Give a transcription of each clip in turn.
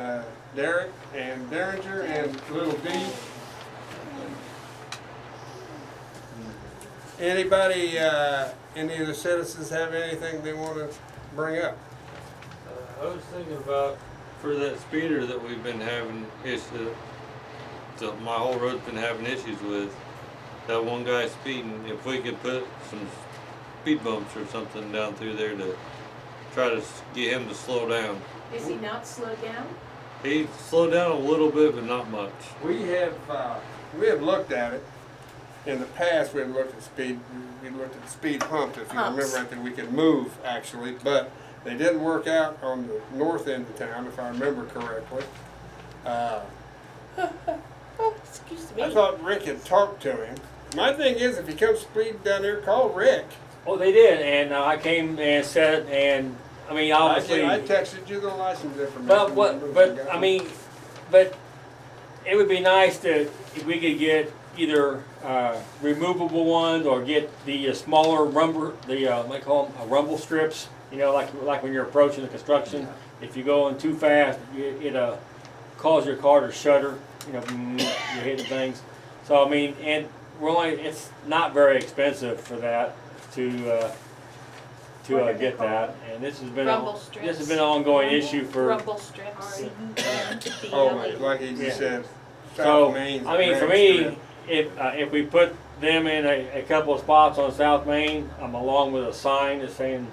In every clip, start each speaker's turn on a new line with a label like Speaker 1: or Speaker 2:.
Speaker 1: Uh, Derek and Derringer and Little D. Anybody, uh, any of the citizens have anything they wanna bring up?
Speaker 2: Uh, I was thinking about for that speeder that we've been having issue, that my whole road's been having issues with. That one guy speeding, if we could put some speed bumps or something down through there to try to s- get him to slow down.
Speaker 3: Is he not slowed down?
Speaker 2: He slowed down a little bit, but not much.
Speaker 1: We have, uh, we have looked at it. In the past, we had looked at speed, we looked at speed humps, if you remember,
Speaker 3: Humps.
Speaker 1: I think we could move actually, but they didn't work out on the north end of town, if I remember correctly. Uh,
Speaker 3: Oh, excuse
Speaker 1: I thought Rick had talked to him. My thing is, if he comes speed down there, call Rick.
Speaker 4: Oh, they did, and uh, I came and said, and I mean,
Speaker 1: I
Speaker 4: obviously,
Speaker 1: said, I texted you the license information.
Speaker 4: but
Speaker 1: Remember,
Speaker 4: what,
Speaker 1: you
Speaker 4: but
Speaker 1: got
Speaker 4: I
Speaker 1: it.
Speaker 4: mean, but it would be nice to if we could get either uh, removable ones or get the uh, smaller rumble, the uh, what do you call them, uh, rumble strips. You know, like like when you're approaching the construction, if you go in too fast, it, it uh, cause your car to shudder. You know, you're hitting things. So I mean, and we're only it's not very expensive for that to uh, to uh, get that. And this has been
Speaker 3: Rumble
Speaker 4: a,
Speaker 3: strips.
Speaker 4: this has been an ongoing issue for.
Speaker 3: Rumble strips.
Speaker 1: Oh, my- like he just
Speaker 4: Yeah.
Speaker 1: said.
Speaker 4: So,
Speaker 1: South Main's
Speaker 4: I mean, for
Speaker 1: Main
Speaker 4: me,
Speaker 1: Street.
Speaker 4: if, uh, if we put them in a, a couple of spots on South Main, I'm along with a sign that's saying,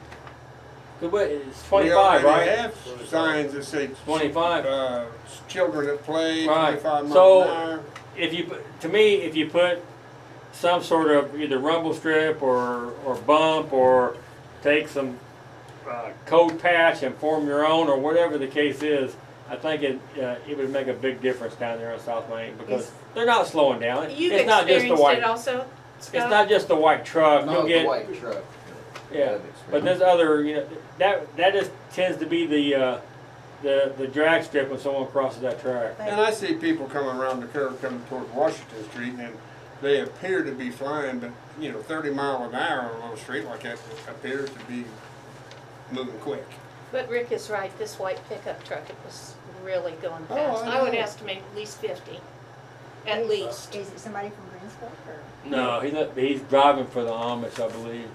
Speaker 4: good, but it's twenty-five,
Speaker 1: We already
Speaker 4: right?
Speaker 1: have signs that say.
Speaker 4: 25.
Speaker 1: Uh, children at play,
Speaker 4: Right.
Speaker 1: twenty-five mile
Speaker 4: So-
Speaker 1: an hour.
Speaker 4: If you, put- to me, if you put some sort of either rumble strip or, or bump or take some, uh, code patch and form your own or whatever the case is, I think it, uh, it would make a big difference down there on South Main because
Speaker 3: Yes.
Speaker 4: they're not slowing down.
Speaker 3: You've
Speaker 4: It's not just the
Speaker 3: experienced
Speaker 4: white,
Speaker 3: it also,
Speaker 4: it's
Speaker 3: Scott?
Speaker 4: not just the white truck.
Speaker 5: Not
Speaker 4: You'll
Speaker 5: the
Speaker 4: get.
Speaker 5: white truck.
Speaker 4: Yeah, but there's other, you know, that, that just tends to be the, uh, the, the drag strip when someone crosses that track.
Speaker 1: And I see people coming around the curve coming toward Washington Street and they appear to be flying, but, you know, thirty mile an hour on a little street like that appears to be moving quick.
Speaker 3: But Rick is right, this white pickup truck, it was really going
Speaker 1: Oh,
Speaker 3: fast.
Speaker 1: I
Speaker 3: I would
Speaker 1: know.
Speaker 3: estimate at least fifty, at least.
Speaker 6: Is it somebody from Greensburg or?
Speaker 4: No, he's not, he's driving for the Amish, I believe.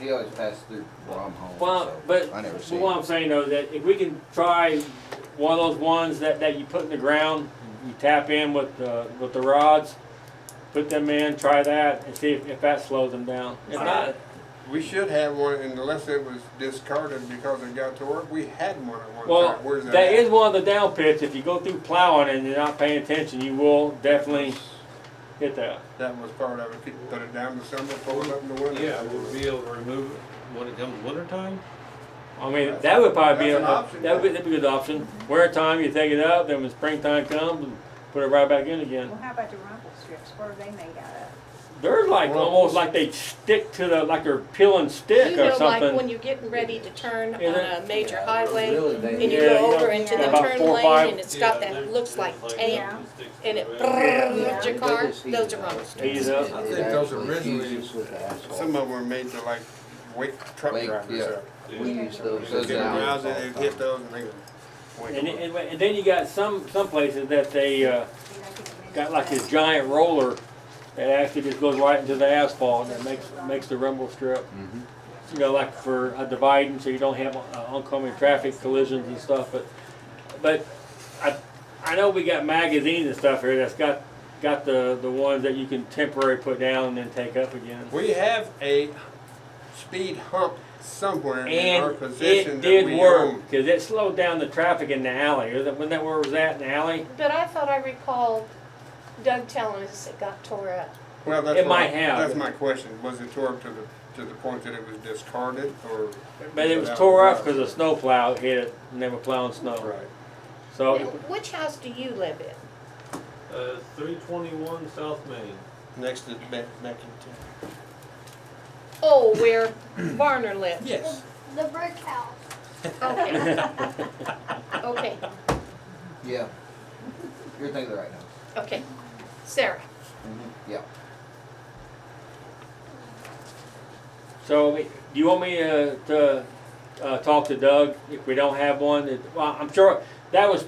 Speaker 5: He always passed through where I'm home,
Speaker 4: Well,
Speaker 5: so
Speaker 4: but,
Speaker 5: I never
Speaker 4: but
Speaker 5: see.
Speaker 4: what I'm saying though, that if we can try one of those ones that, that you put in the ground, you tap in with the, with the rods, put them in, try that, and see if, if that slows them down. If not,
Speaker 1: We should have one unless it was discarded because it got to work. We had one at one
Speaker 4: well,
Speaker 1: time. Where's that?
Speaker 4: that
Speaker 1: at?
Speaker 4: is one of the down pits, if you go through plowing and you're not paying attention, you will definitely hit that.
Speaker 1: That was part of it. People put it down to summer, pull it up in the winter.
Speaker 2: Yeah, we'll be able to remove it when it comes winter time.
Speaker 4: I mean, that would probably be,
Speaker 1: That's
Speaker 4: a
Speaker 1: an option.
Speaker 4: that would be, that'd be a good option. Winter time, you take it up, then when springtime comes, and put it right back in again.
Speaker 6: Well, how about the rumble strips? What are they made out of?
Speaker 4: They're like,
Speaker 1: Well-
Speaker 4: almost like they stick to the, like they're peeling
Speaker 3: You
Speaker 4: stick or
Speaker 3: know, like when
Speaker 4: something.
Speaker 3: you're getting ready to turn on
Speaker 4: Yeah, that-
Speaker 3: a major
Speaker 5: Yeah,
Speaker 3: highway
Speaker 5: really, they-
Speaker 3: and you
Speaker 4: Yeah, you
Speaker 3: go
Speaker 4: know,
Speaker 3: over into the
Speaker 4: about
Speaker 3: turn
Speaker 4: four or five-
Speaker 3: lane and it's
Speaker 2: Yeah,
Speaker 3: got that,
Speaker 2: they're-
Speaker 3: looks
Speaker 2: it's
Speaker 3: like tape
Speaker 6: Yeah.
Speaker 2: sticks to
Speaker 3: and it
Speaker 2: the ground.
Speaker 6: Yeah.
Speaker 3: brrrrs your
Speaker 5: They
Speaker 3: car, those
Speaker 5: just heat
Speaker 3: are
Speaker 5: it up.
Speaker 3: rumble
Speaker 4: Hey,
Speaker 3: strips.
Speaker 4: you know,
Speaker 1: I
Speaker 5: It
Speaker 1: think those
Speaker 5: actually
Speaker 1: originally-
Speaker 5: fuses with the asphalt.
Speaker 1: Some of them were made to like wake truck
Speaker 5: Wake,
Speaker 1: drivers
Speaker 5: yeah.
Speaker 1: up.
Speaker 5: We use those.
Speaker 1: They
Speaker 5: those
Speaker 1: get
Speaker 5: now.
Speaker 1: aroused and they hit those and they wake
Speaker 4: And,
Speaker 1: them up.
Speaker 4: and, and then you got some, some places that they, uh,
Speaker 6: Do they get them in
Speaker 4: got
Speaker 6: the
Speaker 4: like this
Speaker 6: ground?
Speaker 4: giant roller that actually just goes right into the asphalt and makes, makes the rumble strip.
Speaker 5: Mhm.
Speaker 4: You know, like for a dividing, so you don't have uh, oncoming traffic collisions and stuff, but, but I, I know we got magazines and stuff here that's got, got the, the ones that you can temporarily put down and then take up again.
Speaker 1: We have a speed hump somewhere in our
Speaker 4: And
Speaker 1: position
Speaker 4: it
Speaker 1: that
Speaker 4: did
Speaker 1: we
Speaker 4: work,
Speaker 1: own.
Speaker 4: cause it slowed down the traffic in the alley, Is that- wasn't that where it was at, in the alley?
Speaker 3: But I thought I recalled Doug telling us it got tore up.
Speaker 1: Well, that's
Speaker 4: It
Speaker 1: what-
Speaker 4: might have.
Speaker 1: That's my question. Was it tore up to the, to the point that it was discarded or?
Speaker 4: But it was tore up cause a snow plow hit it, and they were plowing snow,
Speaker 1: Right.
Speaker 4: so.
Speaker 3: Now, Which house do you live in?
Speaker 2: Uh, three twenty-one South Main.
Speaker 1: Next to Be- Beckington.
Speaker 3: Oh, where Barner lives?
Speaker 1: Yes.
Speaker 7: The brick house.
Speaker 3: Okay, okay,
Speaker 5: Yeah. You're thinking the right now.
Speaker 3: okay. Sarah, Mm-hmm.
Speaker 5: Yeah.
Speaker 4: So, do you want me uh, to uh, talk to Doug if we don't have one? It- Well, I'm sure, that was